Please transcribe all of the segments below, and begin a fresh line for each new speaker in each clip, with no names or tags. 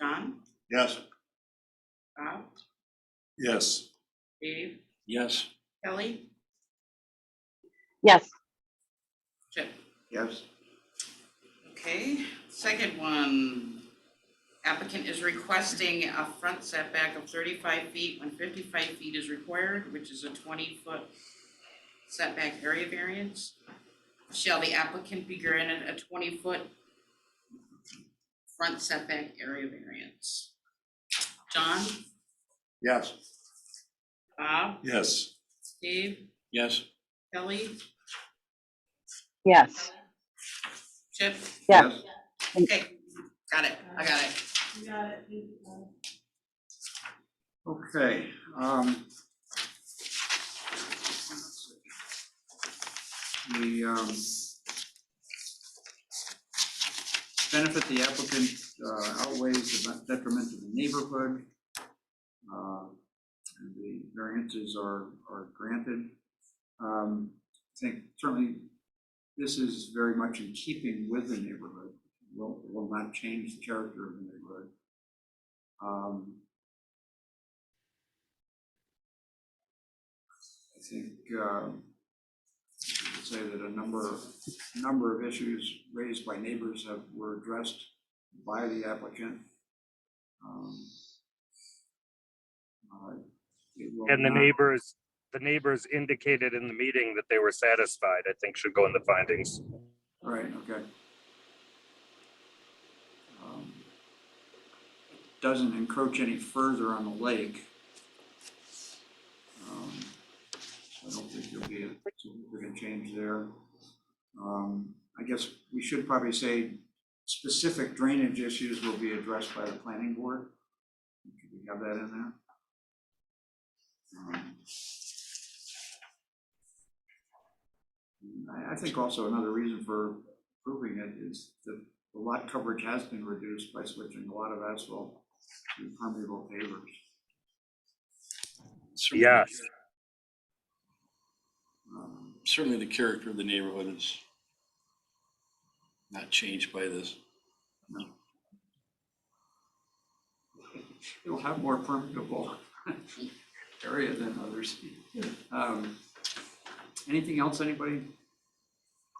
John,
Yes.
Bob,
Yes.
Dave,
Yes.
Kelly,
yes,
Chip.
Yes.
Okay, second one. Applicant is requesting a front setback of thirty-five feet when fifty-five feet is required, which is a twenty-foot setback area variance. Shall the applicant be granted a twenty-foot front setback area variance? John,
Yes.
Bob,
Yes.
Dave,
Yes.
Kelly,
yes.
Chip?
Yes.
Okay, got it, I got it.
Okay, um. The, um. Benefit the applicant uh, outweighs the detriment to the neighborhood. Uh, and The variances are, are granted. Um, I think certainly this is very much in keeping with the neighborhood, will, will not change the character of the neighborhood. Um, I think, um, I would say that a number, number of issues raised by neighbors have, were addressed by the applicant. Um, uh, it will
And the
not-
neighbors, the neighbors indicated in the meeting that they were satisfied, I think should go in the findings.
Right, okay. Um, Doesn't encroach any further on the lake. Um, so I don't think there'll be a significant change there. Um, I guess we should probably say specific drainage issues will be addressed by the planning board. Could we have that in there? Um, I, I think also another reason for approving it is that the lot coverage has been reduced by switching a lot of asphalt to permeable pavers.
Yes,
Um,
Certainly the character of the neighborhood is not changed by this.
It'll have more permeable area than others. Um, Anything else, anybody?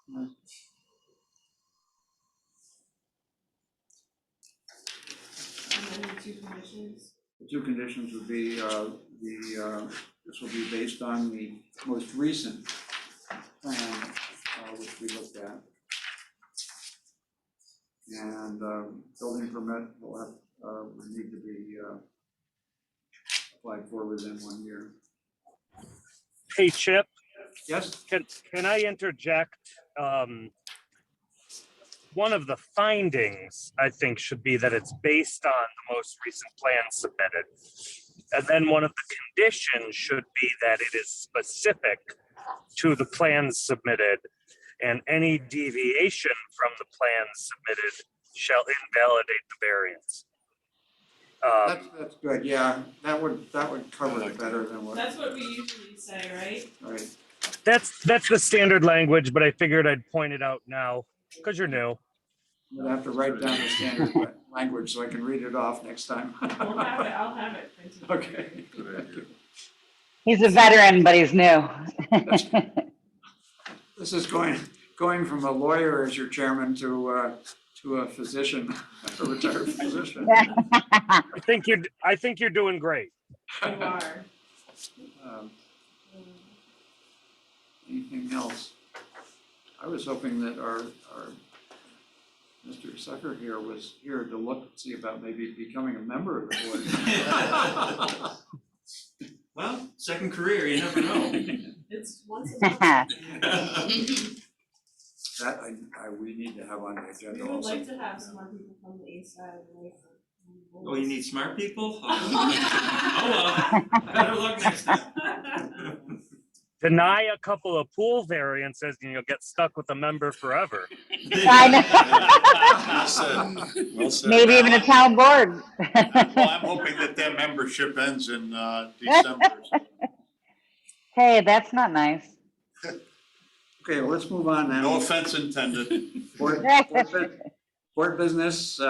No. The two conditions would be, uh, the, uh, this will be based on the most recent plan, uh, which we looked at. And, uh, building permit will have, uh, would need to be, uh, applied for within one year.
hey Chip,
Yes,
can, can I interject? Um, One of the findings, I think, should be that it's based on the most recent plan submitted. And then one of the conditions should be that it is specific to the plans submitted. And any deviation from the plans submitted shall invalidate the variance.
that's,
Um,
that's good, yeah, that would, that would cover it better than what,
That's what we usually say, right?
right,
That's, that's the standard language, but I figured I'd point it out now, because you're new.
I'd have to write down the standard language so I can read it off next time.
We'll have it, I'll have it printed.
Okay.
He's a veteran, but he's new.
This is going, going from a lawyer as your chairman to, uh, to a physician, a retired physician.
I think you're, I think you're doing great.
You are.
Um, Anything else? I was hoping that our, our Mr. Sucker here was here to look, see about maybe becoming a member of the board.
Well, second career, you never know.
It's once a month.
Yes,
That I, I, we need to have on the
We
agenda
would
also.
like to have some more people from the east side. right?
Oh, you need smart people? Oh, oh well, better luck next time.
Deny a couple of pool variances and you'll get stuck with a member forever.
Maybe even a town board.
Well, I'm hoping that that membership ends in uh, December.
Hey, that's not nice.
Okay, well, let's move on then.
No offense intended.
Board, board bu- board business, uh,